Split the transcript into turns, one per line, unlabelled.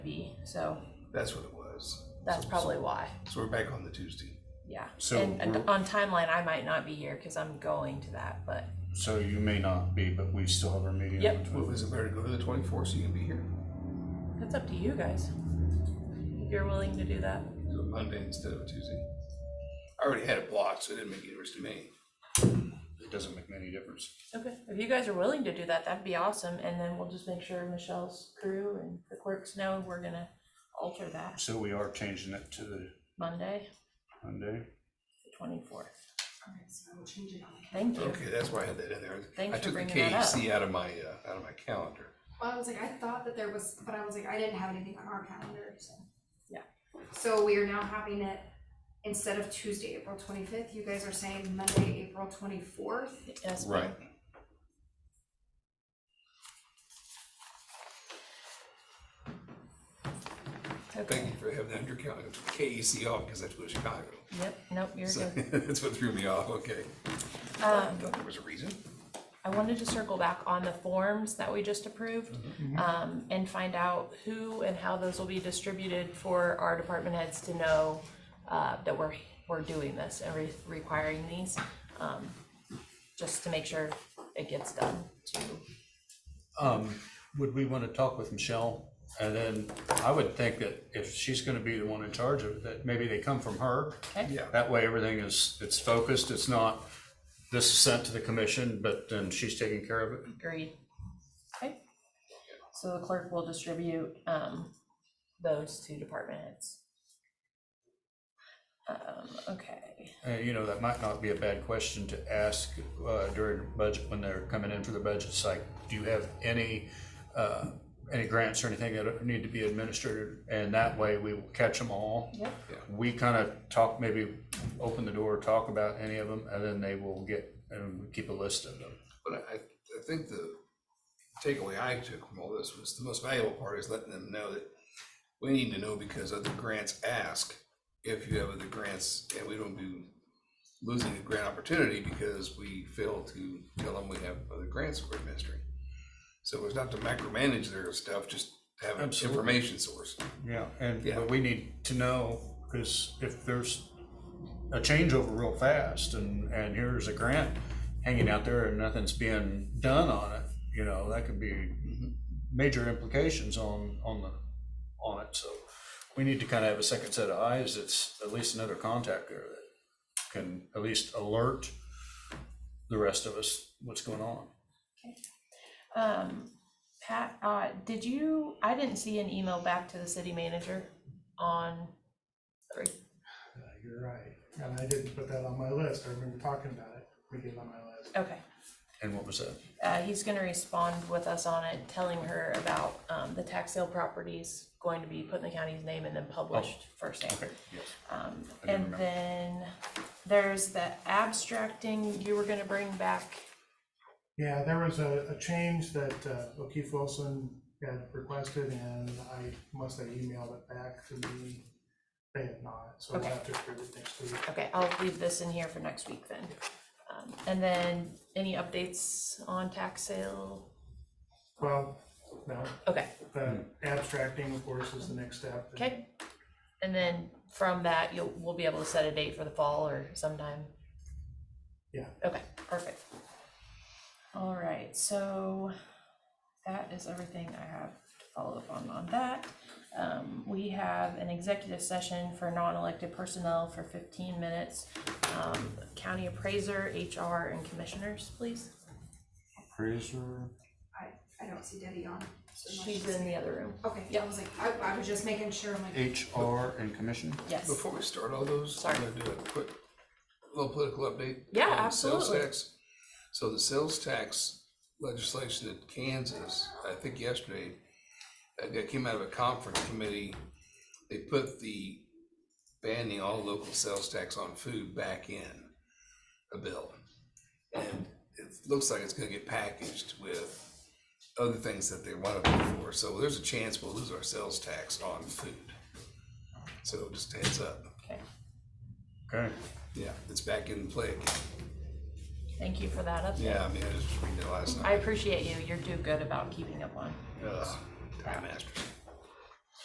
So
That's what it was.
that's
So-
probably why.
So we're back on the Tuesday.
Yeah.
So
and, and
we're-
on timeline, I might not be here because I'm going to that, but
So you may not be, but we still have our meeting on
Yep.
the
Well,
twelfth.
is it better to go to the twenty-fourth so you can be here?
that's up to you guys. If you're willing to do that.
Do it Monday instead of Tuesday. I already had it blocked, so it didn't make any difference to me.
It doesn't make any difference.
Okay. If you guys are willing to do that, that'd be awesome. And then we'll just make sure Michelle's crew and the clerks know we're gonna alter that
So we are changing it to the
Monday,
Monday.
the twenty-fourth.
Alright, so I will change it on the
Thank you.
Okay, that's why I had that in there.
Thanks
I
for
took the
bringing that
KFC out of my, uh, out of my calendar.
Well, I was like, I thought that there was, but I was like, I didn't have anything on our calendar, so.
Yeah.
So we are now having it, instead of Tuesday, April twenty-fifth, you guys are saying Monday, April twenty-fourth?
Yes, ma'am.
Right.
Okay.
Thank you for having that under calendar. I took KEC off because I was Chicago.
Yep, nope, you're
So
good.
that's what threw me off, okay.
Um,
I thought there was a reason.
I wanted to circle back on the forms that we just approved um, and find out who and how those will be distributed for our department heads to know uh, that we're, we're doing this and re- requiring these, um, just to make sure it gets done too.
Um, would we want to talk with Michelle? And then I would think that if she's gonna be the one in charge of it, that maybe they come from her.
Okay?
Yeah.
That way, everything is, it's focused, it's not, this is sent to the commission, but then she's taking care of it.
Agreed. Okay. So the clerk will distribute um, those to department heads. Um, Okay.
Uh, you know, that might not be a bad question to ask uh, during budget, when they're coming in for the budget It's like, Do you have any, uh, any grants or anything that need to be administered? And that way we will catch them all.
Yep.
We kind of talk, maybe open the door, talk about any of them, and then they will get, and we keep a list of them.
But I, I think the takeaway I took from all this was the most valuable part is letting them know that we need to know because other grants ask if you have other grants and we don't be losing a grant opportunity because we fail to tell them we have other grants we're administering. So it's not to micromanage their stuff, just have an
Absolutely.
information source.
Yeah, and,
Yeah.
but we need to know, because if there's a changeover real fast and, and here's a grant hanging out there and nothing's being done on it, you know, that could be major implications on, on the, on it, so we need to kind of have a second set of eyes, that's at least another contact there that can at least alert the rest of us what's going on.
Um, Pat, uh, did you, I didn't see an email back to the city manager on,
Yeah, Uh, you're right. And I didn't put that on my list. I remember talking about it. We get it on my list.
okay.
And what was that?
Uh, he's gonna respond with us on it, telling her about, um, the tax sale properties going to be put in the county's name and then published first name.
Oh, Okay, yes.
Um,
I
and
didn't remember.
then there's the abstracting you were gonna bring back.
Yeah, there was a, a change that uh, O'Keefe Wilson had requested and I, must have emailed it back to me. They have not, so we'll
Okay.
have to approve it next week.
Okay, I'll leave this in here for next week then. Um, and then any updates on tax sale?
Well, no,
Okay.
the abstracting, of course, is the next step.
Okay, and then from that, you'll, we'll be able to set a date for the fall or sometime?
Yeah.
Okay, perfect. All right, so that is everything I have to follow up on on that. Um, we have an executive session for non-elected personnel for fifteen minutes. Um, county appraiser, HR, and commissioners, please.
Appraiser.
I, I don't see Debbie on. so unless
She's in the other room.
Okay, yeah, I was like, I, I was just making sure, I'm like,
HR and commission?
Yes.
Before we start all those, I'm
Sorry.
gonna do a quick little political update.
Yeah,
on sales
absolutely.
tax. So the sales tax legislation in Kansas, I think yesterday, uh, that came out of a conference committee. They put the banning all local sales tax on food back in a bill. And it looks like it's gonna get packaged with other things that they want to pay for. So there's a chance we'll lose our sales tax on food. So just heads up.
Okay,
Okay.
Yeah, it's back in play again.
thank you for that update.
Yeah, I mean, I just read it last
I
night.
appreciate you, you're too good about keeping up on.
Ugh, Time Masters.